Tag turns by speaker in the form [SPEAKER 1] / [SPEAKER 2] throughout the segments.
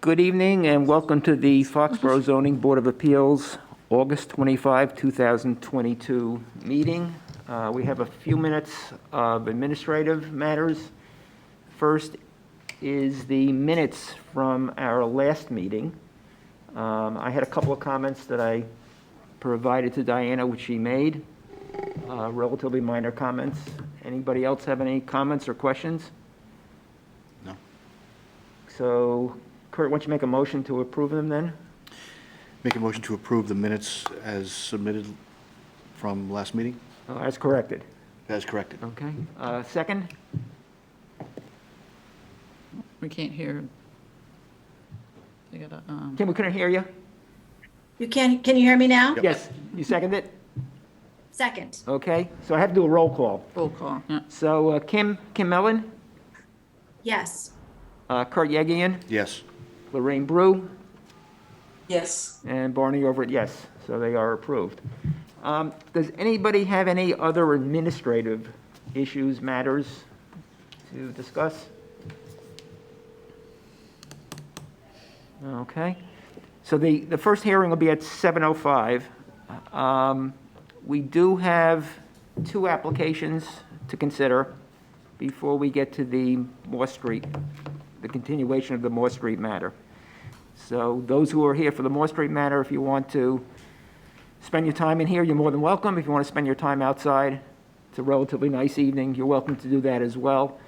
[SPEAKER 1] Good evening and welcome to the Foxborough Zoning Board of Appeals, August 25, 2022 meeting. Uh, We have a few minutes of administrative matters. First is the minutes from our last meeting. Um, I had a couple of comments that I provided to Diana, which she made, uh, relatively minor comments. Anybody else have any comments or questions?
[SPEAKER 2] No.
[SPEAKER 1] So Kurt, why don't you make a motion to approve them then?
[SPEAKER 2] Make a motion to approve the minutes as submitted from last meeting,
[SPEAKER 1] Uh, As corrected.
[SPEAKER 2] as corrected.
[SPEAKER 1] Okay. Uh, Second?
[SPEAKER 3] We can't hear. They gotta, um,
[SPEAKER 1] Tim, we couldn't hear you?
[SPEAKER 4] You can, can you hear me now?
[SPEAKER 2] Yep.
[SPEAKER 1] Yes, you seconded it?
[SPEAKER 4] Second,
[SPEAKER 1] Okay, so I have to do a roll call.
[SPEAKER 3] roll call, yeah.
[SPEAKER 1] So uh, Kim, Kim Mellon,
[SPEAKER 4] yes.
[SPEAKER 1] uh, Kurt Yegian,
[SPEAKER 2] Yes.
[SPEAKER 1] Lorraine Brew,
[SPEAKER 5] Yes,
[SPEAKER 1] and Barney Overett, yes. So they are approved. Um, Does anybody have any other administrative issues, matters to discuss? Okay. So the, the first hearing will be at 7:05. Um, We do have two applications to consider before we get to the Moore Street, the continuation of the Moore Street matter. So those who are here for the Moore Street matter, if you want to spend your time in here, you're more than welcome. If you want to spend your time outside, it's a relatively nice evening, you're welcome to do that as well.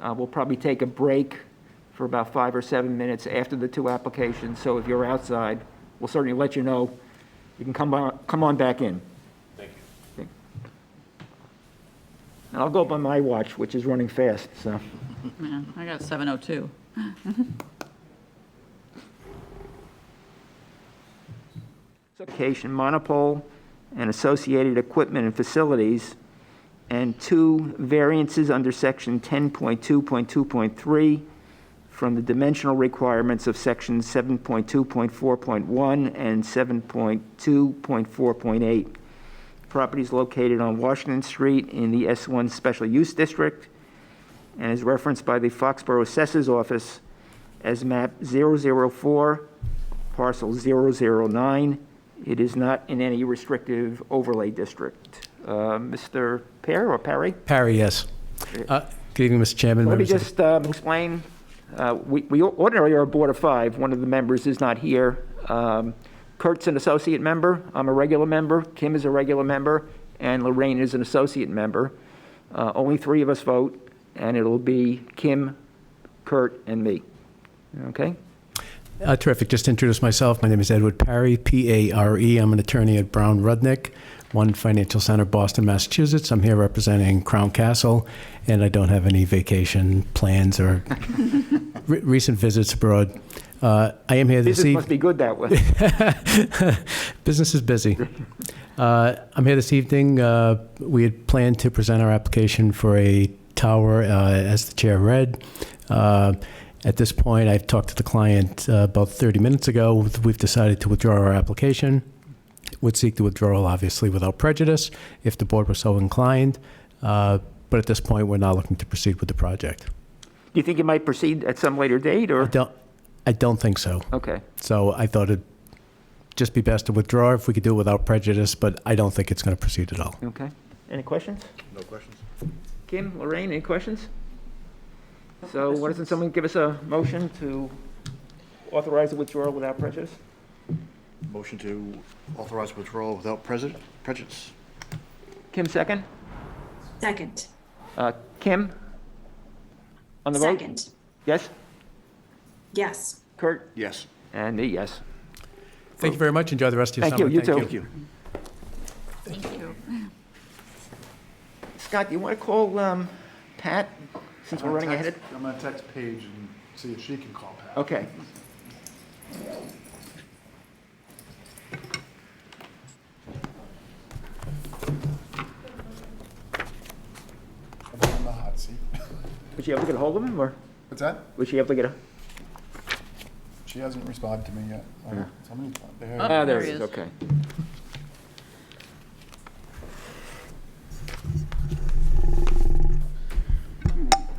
[SPEAKER 1] Uh, We'll probably take a break for about five or seven minutes after the two applications, so if you're outside, we'll certainly let you know. You can come on, come on back in. Thank you. And I'll go by my watch, which is running fast, so.
[SPEAKER 3] Man, I got 7:02.
[SPEAKER 1] Location, monopole, and associated equipment and facilities, and two variances under section 10.2.2.3 from the dimensional requirements of section 7.2.4.1 and 7.2.4.8. Property is located on Washington Street in the S1 Special Use District and is referenced by the Foxborough Assessor's Office as map 004, parcel 009. It is not in any restrictive overlay district. Uh, Mr. Pear or Perry?
[SPEAKER 6] Parry, yes. Uh, Good evening, Mr. Chairman.
[SPEAKER 1] Let me
[SPEAKER 6] members of the-
[SPEAKER 1] just um, explain, uh, we we ordinarily are a board of five, one of the members is not here. Um, Kurt's an associate member, I'm a regular member, Kim is a regular member, and Lorraine is an associate member. Uh, Only three of us vote, and it'll be Kim, Kurt, and me. Okay?
[SPEAKER 6] Uh, Terrific. Just to introduce myself, my name is Edward Parry, P-A-R-E. E. I'm an attorney at Brown Rudnick, One Financial Center, Boston, Massachusetts. I'm here representing Crown Castle, and I don't have any vacation plans or re- recent visits abroad. Uh, I am here this
[SPEAKER 1] Business
[SPEAKER 6] evening.
[SPEAKER 1] must be good that way.
[SPEAKER 6] Business is busy. Uh, I'm here this evening. Uh, We had planned to present our application for a tower, uh, as the chair read. Uh, At this point, I've talked to the client uh, about 30 minutes ago. We've decided to withdraw our application. Would seek the withdrawal, obviously, without prejudice, if the board were so inclined. Uh, But at this point, we're not looking to proceed with the project.
[SPEAKER 1] Do you think you might proceed at some later date,
[SPEAKER 6] I
[SPEAKER 1] or?
[SPEAKER 6] don't, I don't think so.
[SPEAKER 1] Okay,
[SPEAKER 6] So I thought it'd just be best to withdraw if we could do it without prejudice, but I don't think it's going to proceed at all.
[SPEAKER 1] okay. Any questions?
[SPEAKER 2] No questions?
[SPEAKER 1] Kim, Lorraine, any questions?
[SPEAKER 3] No
[SPEAKER 1] So why doesn't
[SPEAKER 3] questions.
[SPEAKER 1] someone give us a motion to authorize the withdrawal without prejudice?
[SPEAKER 2] Motion to authorize withdrawal without prejud- prejudice.
[SPEAKER 1] Kim, second?
[SPEAKER 4] Second,
[SPEAKER 1] Uh, Kim? On the vote?
[SPEAKER 4] second,
[SPEAKER 1] Yes?
[SPEAKER 4] yes.
[SPEAKER 1] Kurt?
[SPEAKER 2] Yes.
[SPEAKER 1] And me, yes.
[SPEAKER 6] Thank you very much. Enjoy the rest of your
[SPEAKER 1] Thank you,
[SPEAKER 6] summer.
[SPEAKER 1] you too.
[SPEAKER 2] Thank you.
[SPEAKER 3] Thank you.
[SPEAKER 1] Scott, do you want to call um, Pat, since
[SPEAKER 3] Uh,
[SPEAKER 1] we're running ahead?
[SPEAKER 7] I'm gonna text Paige and see if she can call Pat.
[SPEAKER 1] Okay.
[SPEAKER 7] I'm in the hot seat.
[SPEAKER 1] Was she able to get a hold of him, or
[SPEAKER 7] What's that?
[SPEAKER 1] was she able to get a?
[SPEAKER 7] She hasn't responded to me yet. Oh, Somebody, there.
[SPEAKER 3] Oh.
[SPEAKER 1] Ah, there
[SPEAKER 3] There
[SPEAKER 1] it
[SPEAKER 3] he
[SPEAKER 1] is,
[SPEAKER 3] is.
[SPEAKER 1] okay.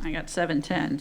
[SPEAKER 3] I got 7:10,